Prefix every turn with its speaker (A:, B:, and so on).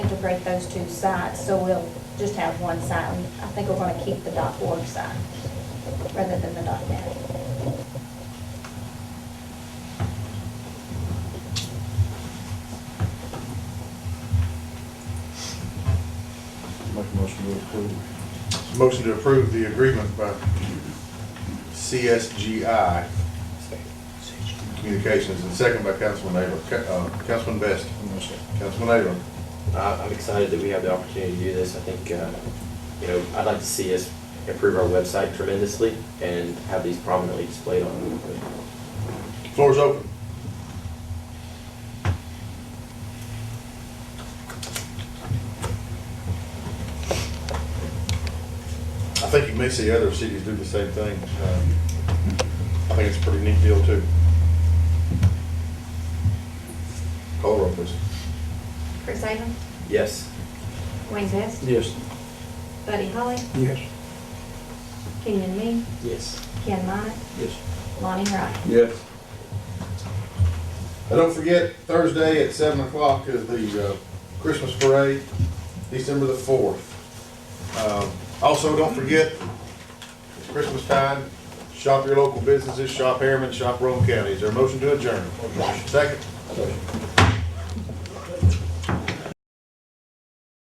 A: separate those two sites, so we'll just have one site. And I think we're gonna keep the dot org site rather than the dot net.
B: Make a motion to approve.
C: Motion to approve the agreement by CSGI Communications, and second by Councilman Ayler. Ca- uh, Councilman Best. Councilman Ayler.
D: I- Uh, I'm excited that we have the opportunity to do this. I think, uh, you know, I'd like to see us improve our website tremendously and have these prominently displayed on.
C: Floor is open. I think you may see other cities do the same thing. Um, I think it's a pretty neat deal, too. Call roll, please.
E: Chris Avon,
D: Yes,
E: Wayne Best,
B: Yes.
E: Buddy Holly,
B: Yes.
E: Kenyon Me,
D: yes.
E: Ken Minnet,
B: Yes.
E: Lonnie Wright.
B: Yes.
C: And don't forget, Thursday at seven o'clock is the uh, Christmas parade, December the fourth. Um, Also, don't forget, it's Christmas time, shop your local businesses, shop Harriman, shop Rome County. Is there a motion to adjourn? Second?